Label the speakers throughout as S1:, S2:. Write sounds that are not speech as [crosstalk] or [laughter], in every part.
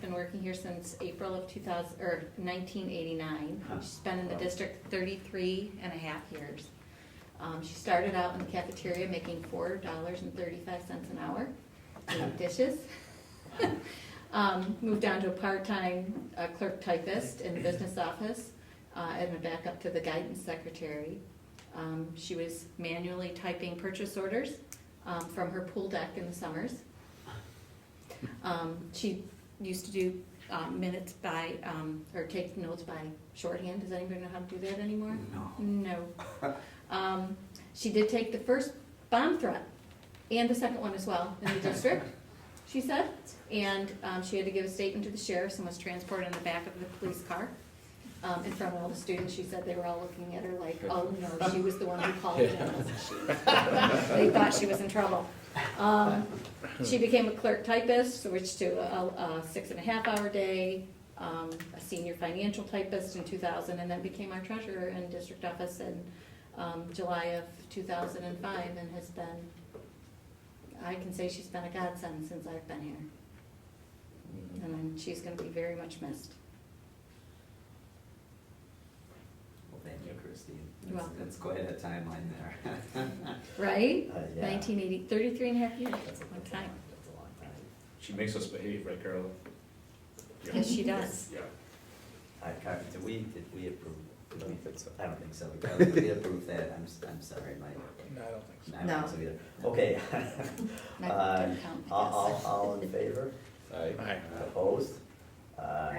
S1: been working here since April of two thousand, or nineteen eighty-nine. She's been in the district 33 and a half years. Um, she started out in the cafeteria making four dollars and thirty-five cents an hour, doing dishes. [laughs] Um, moved down to a part-time uh, clerk typist in the business office, uh, and then back up to the guidance secretary. Um, she was manually typing purchase orders, um, from her pool deck in the summers. Um, she used to do, um, minutes by, um, or take notes by shorthand, does anybody know how to do that anymore?
S2: No.
S1: No. Um, she did take the first bomb threat and the second one as well in the district, she said. And um, she had to give a statement to the sheriff and was transported in the back of the police car. Um, in front of all the students, she said they were all looking at her like, oh no, she was the one who called in. They thought she was in trouble. Um, she became a clerk typist, switched to a, a six and a half hour day, um, a senior financial typist in two thousand, and then became our treasurer in district office in, um, July of two thousand and five, and has been, I can say she's been a godsend since I've been here. And then she's gonna be very much missed.
S2: Well, thank you, Christine.
S1: You're
S2: That's-
S1: welcome.
S2: That's quite a timeline there.
S1: Right?
S2: Uh, yeah.
S1: Nineteen eighty, thirty-three and a half years,
S2: That's a-
S1: one
S2: that's a
S1: time.
S2: long- That's a long time.
S3: She makes us behave, right, Carol? Yeah.
S1: Yes, she does.
S3: Yeah.
S2: I, can't- did we, did we approve? did
S4: I don't
S2: we-
S4: think so.
S2: I don't think so. Carol, Did we approve that? I'm, s- I'm sorry, Mike.
S4: No, I don't think so.
S2: I don't
S1: No.
S2: think so either. Okay. [laughs]
S1: Not-
S2: Uh,
S1: don't count, I
S2: All, all,
S1: guess.
S2: all in favor?
S4: Aye.
S2: Opposed? Uh,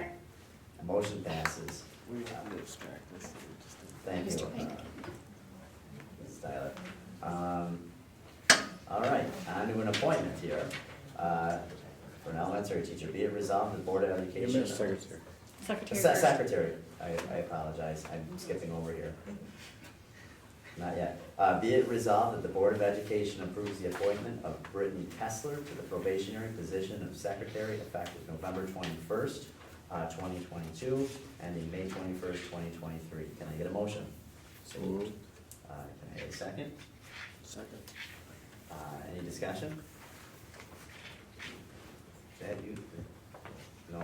S2: Motion passes.
S5: We have to extract this. Just to-
S2: Thank you.
S1: Mr. Pink.
S2: uh, Ms. Tyler. Um, All right, on to an appointment here. Uh, For an elementary teacher, be it resolved, the Board of Education.
S1: Secretary
S2: Se-
S1: first.
S2: Secretary, I, I apologize, I'm skipping over here. Not yet. Uh, be it resolved that the Board of Education approves the appointment of Brittany Kessler to the probationary position of Secretary effective November twenty-first, uh, twenty twenty-two, ending May twenty-first, twenty twenty-three. Can I get a motion?
S4: So moved.
S2: Uh, can I get a second?
S5: Second.
S2: Uh, any discussion? Chad, you, no,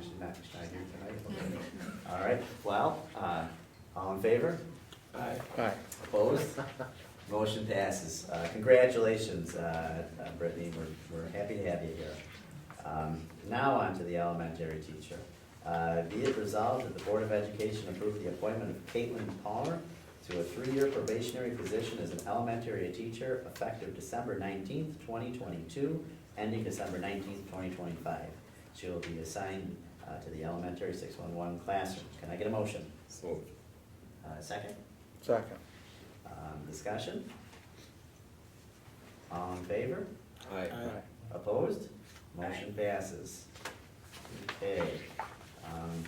S2: she's not, she's not here tonight, okay. All right, well, uh, all in favor?
S3: Aye.
S4: Aye.
S2: Opposed? Motion passes. Uh, Congratulations, uh, uh, Brittany, we're, we're happy to have you here. Um, Now on to the elementary teacher. Uh, Be it resolved that the Board of Education approve the appointment of Caitlin Palmer to a three-year probationary position as an elementary teacher effective December nineteenth, twenty twenty-two, ending December nineteenth, twenty twenty-five. She will be assigned uh, to the elementary six-one-one classroom. Can I get a motion?
S4: So moved.
S2: Uh, Second?
S4: Second.
S2: Um, discussion? All in favor?
S4: Aye.
S2: Opposed? Motion passes. Okay, um,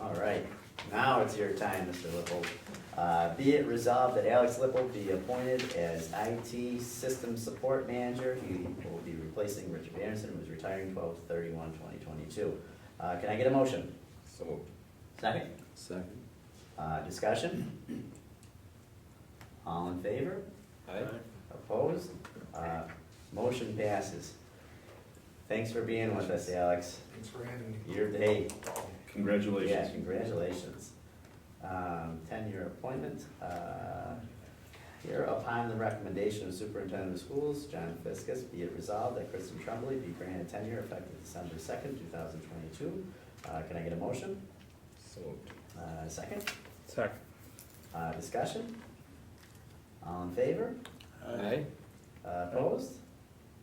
S2: all right, now it's your time, Mr. Lippold. Uh, be it resolved that Alex Lippold be appointed as IT System Support Manager. He will be replacing Richard Anderson, who's retiring twelve thirty-one, twenty twenty-two. Uh, can I get a motion?
S4: So moved.
S2: Second?
S5: Second.
S2: Uh, discussion? All in favor?
S4: Aye.
S2: Opposed? Uh, Motion passes. Thanks for being with us, Alex.
S6: Thanks for having me.
S2: Your day, yeah,
S3: Congratulations.
S2: congratulations. Um, Ten-year appointment. Uh, Here upon the recommendation of Superintendent of Schools, John Fiskus, be it resolved that Kristen Tremblay be granted tenure effective December second, two thousand twenty-two. Uh, Can I get a motion?
S4: So moved.
S2: Uh, Second?
S4: Second.
S2: Uh, Discussion? All in favor?
S4: Aye.
S2: Uh, Opposed?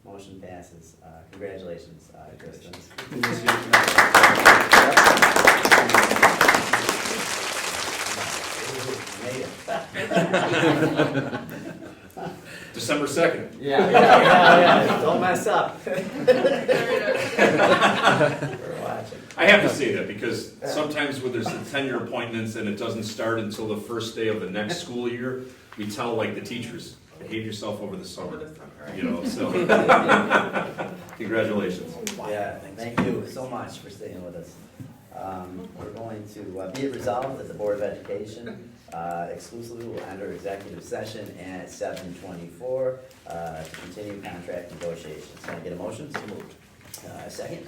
S2: Motion passes. Uh, Congratulations, uh, Kristen. Made it.
S1: [laughs]
S3: December second.
S2: Yeah, yeah, yeah, yeah. Don't mess up. We're watching.
S3: I have to say that because sometimes when there's the tenure appointments and it doesn't start until the first day of the next school year, we tell like the teachers, behave yourself over the summer, you know, so, [laughs] congratulations.
S2: Yeah, thank you so much for staying with us. Um, We're going to, uh, be it resolved that the Board of Education uh, exclusively will enter executive session at seven uh, twenty-four to continue contract negotiations. Can I get Uh, a motion? So moved. Second?